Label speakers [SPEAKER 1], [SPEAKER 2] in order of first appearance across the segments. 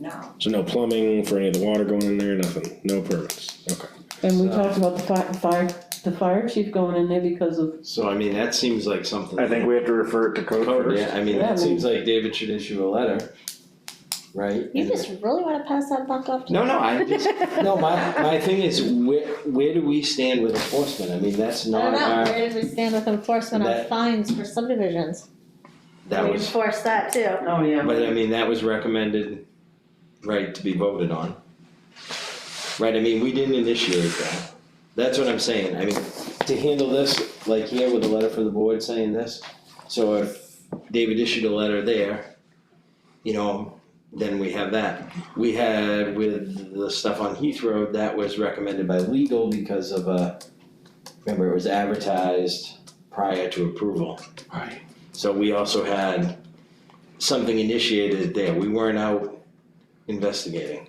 [SPEAKER 1] no.
[SPEAKER 2] So no plumbing for any of the water going in there, nothing, no permits, okay.
[SPEAKER 3] And we
[SPEAKER 4] So-
[SPEAKER 3] talked about the fi- fire, the fire chief going in there because of,
[SPEAKER 4] So I mean, that seems like something.
[SPEAKER 5] I think we have to refer it to code
[SPEAKER 4] Code,
[SPEAKER 5] first.
[SPEAKER 4] yeah, I mean,
[SPEAKER 3] Yeah, I
[SPEAKER 4] it seems like David should issue a letter, right?
[SPEAKER 1] You just really wanna pass that buck off to?
[SPEAKER 4] No, no, I just, no, my, my thing is, where, where do we stand with enforcement? I mean, that's
[SPEAKER 1] I
[SPEAKER 4] not
[SPEAKER 1] don't know,
[SPEAKER 4] our,
[SPEAKER 1] where did we stand with enforcement on
[SPEAKER 4] uh, That-
[SPEAKER 1] fines for subdivisions?
[SPEAKER 4] that
[SPEAKER 1] We
[SPEAKER 4] was,
[SPEAKER 1] Enforce that too.
[SPEAKER 3] oh
[SPEAKER 4] but I
[SPEAKER 3] yeah,
[SPEAKER 4] mean, that was recommended, right, to be voted on. Right, I mean, we didn't initiate that. That's what I'm saying. I mean, to handle this, like here with a letter from the board saying this, so if David issued a letter there, you know, then we have that. We had with the stuff on Heath Road, that was recommended by legal because of a, remember, it was advertised prior to approval. Right. So we also had something initiated there. We weren't out investigating.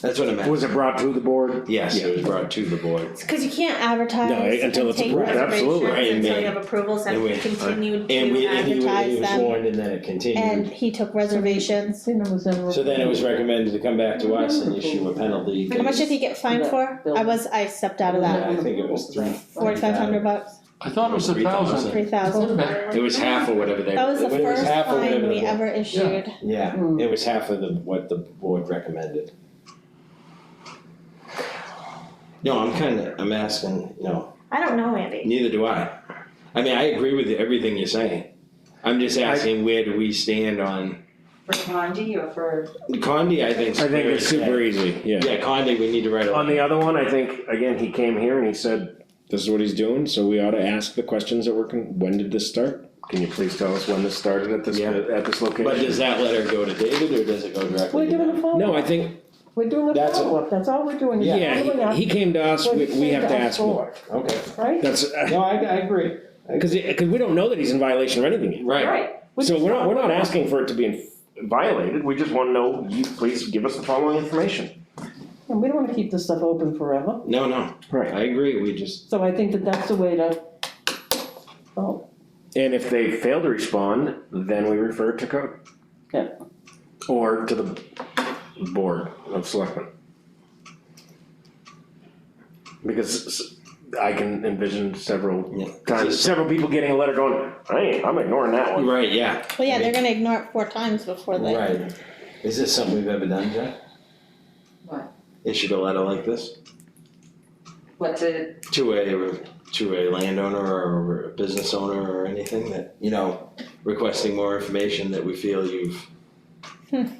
[SPEAKER 4] That's what I meant.
[SPEAKER 5] Was it brought to the board?
[SPEAKER 4] Yes, it was brought to the board.
[SPEAKER 1] It's cause you can't advertise
[SPEAKER 2] No,
[SPEAKER 1] and
[SPEAKER 2] until it's
[SPEAKER 1] take
[SPEAKER 2] approved,
[SPEAKER 5] absolutely.
[SPEAKER 4] Right,
[SPEAKER 1] reservations until
[SPEAKER 4] and
[SPEAKER 1] you have approvals
[SPEAKER 4] and
[SPEAKER 1] and
[SPEAKER 4] we-
[SPEAKER 1] we continued
[SPEAKER 4] uh, And we,
[SPEAKER 1] to
[SPEAKER 4] and he was, he
[SPEAKER 1] advertise
[SPEAKER 4] was
[SPEAKER 1] them.
[SPEAKER 4] warned and then it
[SPEAKER 1] And
[SPEAKER 4] continued.
[SPEAKER 1] he took reservations.
[SPEAKER 3] Cena was in.
[SPEAKER 4] So then it was recommended to come back to us and issue a penalty.
[SPEAKER 1] How much did he get fined for? I was, I stepped out of
[SPEAKER 4] Yeah,
[SPEAKER 1] that.
[SPEAKER 4] I think it was three.
[SPEAKER 1] Forty-five hundred bucks,
[SPEAKER 6] I thought it was a
[SPEAKER 4] Three thousand.
[SPEAKER 6] thousand.
[SPEAKER 1] three thousand.
[SPEAKER 4] It was half or whatever they.
[SPEAKER 1] That was the
[SPEAKER 4] it
[SPEAKER 1] first
[SPEAKER 4] half or whatever
[SPEAKER 1] fine we
[SPEAKER 4] the-
[SPEAKER 1] ever Hmm. issued.
[SPEAKER 4] Yeah,
[SPEAKER 3] Mm.
[SPEAKER 4] it was half of the, what the board recommended. No, I'm kinda, I'm asking, you know,
[SPEAKER 1] I don't know, Andy.
[SPEAKER 4] neither do I. I mean, I agree with everything you're saying. I'm just asking where do we stand on,
[SPEAKER 7] For Condi or for,
[SPEAKER 4] Condi, I think.
[SPEAKER 5] I think it's
[SPEAKER 2] Super easy, yeah,
[SPEAKER 4] Yeah, Condi, we need to write a.
[SPEAKER 5] On the other one, I think, again, he came here and he said,
[SPEAKER 2] this is what he's doing, so we ought to ask the questions that we're, con- when did this start?
[SPEAKER 5] can you please tell us when this started at this,
[SPEAKER 4] Yeah.
[SPEAKER 5] at this location?
[SPEAKER 4] But does that letter go to David or does it go directly?
[SPEAKER 3] We're
[SPEAKER 4] to
[SPEAKER 3] doing
[SPEAKER 4] them?
[SPEAKER 3] a follow-up.
[SPEAKER 2] No, I think,
[SPEAKER 3] We're doing a
[SPEAKER 4] That's a-
[SPEAKER 3] follow-up, that's all we're doing, is
[SPEAKER 4] Yeah,
[SPEAKER 3] following
[SPEAKER 2] yeah,
[SPEAKER 3] up,
[SPEAKER 2] he, he came to us, we, we have to ask more,
[SPEAKER 4] Okay,
[SPEAKER 3] right?
[SPEAKER 2] that's, uh,
[SPEAKER 4] no, I, I agree.
[SPEAKER 2] cause, it- cause we don't know that he's in violation of anything
[SPEAKER 4] Right,
[SPEAKER 7] right,
[SPEAKER 2] yet, so we're not, we're not asking for it to be in
[SPEAKER 5] Violated, we just wanna know, you please give us the following information.
[SPEAKER 3] And we don't wanna keep this stuff open forever,
[SPEAKER 4] no, no,
[SPEAKER 5] Right.
[SPEAKER 4] I agree, we just,
[SPEAKER 3] so I think that that's the way to, oh,
[SPEAKER 5] And if they fail to respond, then we refer it to code.
[SPEAKER 3] Yeah.
[SPEAKER 5] Or to the board of selectmen. Because s- I can envision
[SPEAKER 4] Yeah.
[SPEAKER 5] several times, several people getting a letter going, hey, I'm ignoring that one.
[SPEAKER 4] right, yeah,
[SPEAKER 1] Well, yeah, they're gonna ignore it four times before they.
[SPEAKER 4] right. Is this something we've ever done, Jack?
[SPEAKER 7] What?
[SPEAKER 4] Issued a letter like this
[SPEAKER 7] what's it,
[SPEAKER 4] to a, to a landowner or a business owner or anything that, you know, requesting more information that we feel you've.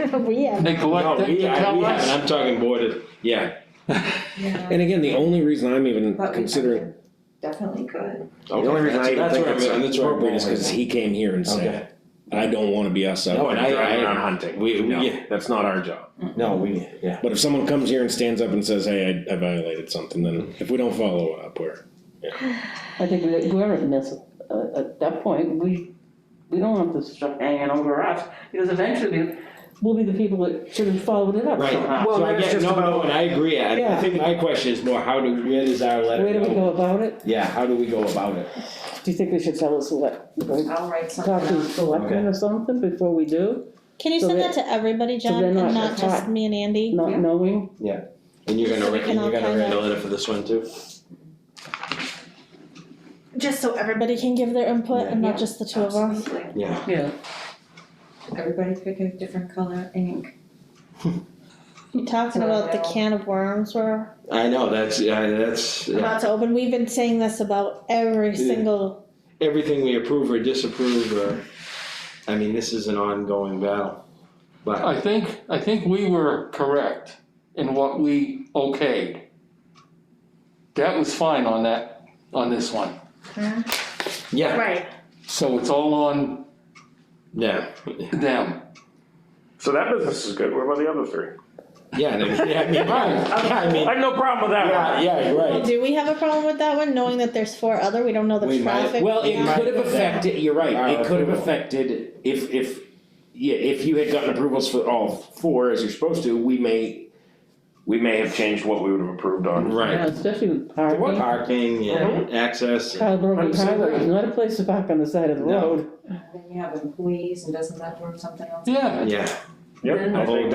[SPEAKER 1] We have,
[SPEAKER 4] No,
[SPEAKER 6] Neglected
[SPEAKER 4] we,
[SPEAKER 6] to
[SPEAKER 4] I,
[SPEAKER 6] tell
[SPEAKER 4] we haven't,
[SPEAKER 6] us.
[SPEAKER 4] I'm talking board of, yeah,
[SPEAKER 7] yeah,
[SPEAKER 2] And again, the only reason I'm even
[SPEAKER 7] but we
[SPEAKER 2] considering,
[SPEAKER 7] could, definitely could.
[SPEAKER 4] okay,
[SPEAKER 5] The only reason
[SPEAKER 4] that's,
[SPEAKER 5] I even
[SPEAKER 4] that's
[SPEAKER 5] think
[SPEAKER 4] where I'm,
[SPEAKER 5] it's
[SPEAKER 4] that's where I'm going
[SPEAKER 2] appropriate is
[SPEAKER 4] with
[SPEAKER 2] cause he came here and
[SPEAKER 4] that.
[SPEAKER 2] said, I don't wanna be us out.
[SPEAKER 4] No, and I-
[SPEAKER 5] Driving around
[SPEAKER 4] I-
[SPEAKER 5] hunting,
[SPEAKER 4] we- we-
[SPEAKER 5] no, that's not our job.
[SPEAKER 4] Okay, no, we, yeah.
[SPEAKER 2] But if someone comes here and stands up and says, hey, I, I violated something, then if we don't follow up, we're,
[SPEAKER 3] I think that we're at miss, uh, at that point, we, we don't want this stuff hanging over us, because eventually we'll be the people that should have followed it up
[SPEAKER 4] Right.
[SPEAKER 3] somehow.
[SPEAKER 5] Well,
[SPEAKER 4] So I
[SPEAKER 5] that's
[SPEAKER 4] get,
[SPEAKER 5] just
[SPEAKER 4] no, no,
[SPEAKER 5] about-
[SPEAKER 4] and I agree, I, I
[SPEAKER 3] Yeah.
[SPEAKER 4] think my question is more, how do, where does our letter
[SPEAKER 3] Where do we go about it?
[SPEAKER 4] Yeah, how do we go about it?
[SPEAKER 3] Do you think we should tell us what,
[SPEAKER 7] I'll write something
[SPEAKER 3] talk to the
[SPEAKER 7] out.
[SPEAKER 3] selectmen or something before we do,
[SPEAKER 1] can you
[SPEAKER 3] So
[SPEAKER 1] send
[SPEAKER 3] they-
[SPEAKER 1] that to everybody,
[SPEAKER 3] so
[SPEAKER 1] John,
[SPEAKER 3] they're
[SPEAKER 1] and
[SPEAKER 3] not
[SPEAKER 1] not just
[SPEAKER 3] caught.
[SPEAKER 1] me and Andy?
[SPEAKER 3] not
[SPEAKER 7] Yeah.
[SPEAKER 3] knowing?
[SPEAKER 4] And you're gonna,
[SPEAKER 1] So we
[SPEAKER 4] write-
[SPEAKER 1] can
[SPEAKER 4] and you're
[SPEAKER 1] all
[SPEAKER 4] gonna
[SPEAKER 1] kind
[SPEAKER 4] write a
[SPEAKER 1] of-
[SPEAKER 4] letter for this one too?
[SPEAKER 1] Just so everybody can give their input and not just the two of us?
[SPEAKER 7] Absolutely.
[SPEAKER 4] Yeah,
[SPEAKER 3] Yeah.
[SPEAKER 7] uh, Everybody pick a different color ink.
[SPEAKER 1] You talking about the can of worms we're
[SPEAKER 4] I know, that's, yeah, that's, yeah.
[SPEAKER 1] about to open, we've been saying this about every
[SPEAKER 4] Yeah.
[SPEAKER 1] single,
[SPEAKER 4] everything we approve or disapprove or, I mean, this is an ongoing battle. But,
[SPEAKER 6] I think, I think we were correct in what we okayed. That was fine on that, on this one.
[SPEAKER 4] yeah,
[SPEAKER 1] right,
[SPEAKER 6] So it's all on
[SPEAKER 4] yeah,
[SPEAKER 6] them.
[SPEAKER 5] So that business is good, what about the other three?
[SPEAKER 4] yeah, I mean, yeah, I mean,
[SPEAKER 6] Right.
[SPEAKER 4] yeah, I mean,
[SPEAKER 5] I have no problem with that one.
[SPEAKER 4] yeah, yeah,
[SPEAKER 1] well,
[SPEAKER 4] right.
[SPEAKER 1] do we have a problem with that one, knowing that there's four other, we don't know
[SPEAKER 4] We
[SPEAKER 1] the
[SPEAKER 4] might-
[SPEAKER 1] traffic?
[SPEAKER 2] Well,
[SPEAKER 1] we
[SPEAKER 2] it
[SPEAKER 1] don't-
[SPEAKER 2] could have affected, you're right,
[SPEAKER 4] Our
[SPEAKER 2] it could have
[SPEAKER 4] approval.
[SPEAKER 2] affected, if, if, yeah, if you had gotten approvals for all four, as you're supposed to, we may,
[SPEAKER 5] We may have changed what we would have approved on.
[SPEAKER 4] Right,
[SPEAKER 3] Yeah, Especially with parking,
[SPEAKER 4] parking and access, and-
[SPEAKER 3] Caldwell
[SPEAKER 5] I'm saying
[SPEAKER 3] Highway
[SPEAKER 5] that-
[SPEAKER 3] is not a place to park on the side of the
[SPEAKER 4] No.
[SPEAKER 3] road.
[SPEAKER 7] Then you have employees and doesn't that work something else?
[SPEAKER 6] Yeah,
[SPEAKER 4] yeah,
[SPEAKER 2] Yep,
[SPEAKER 8] Then-
[SPEAKER 2] I think-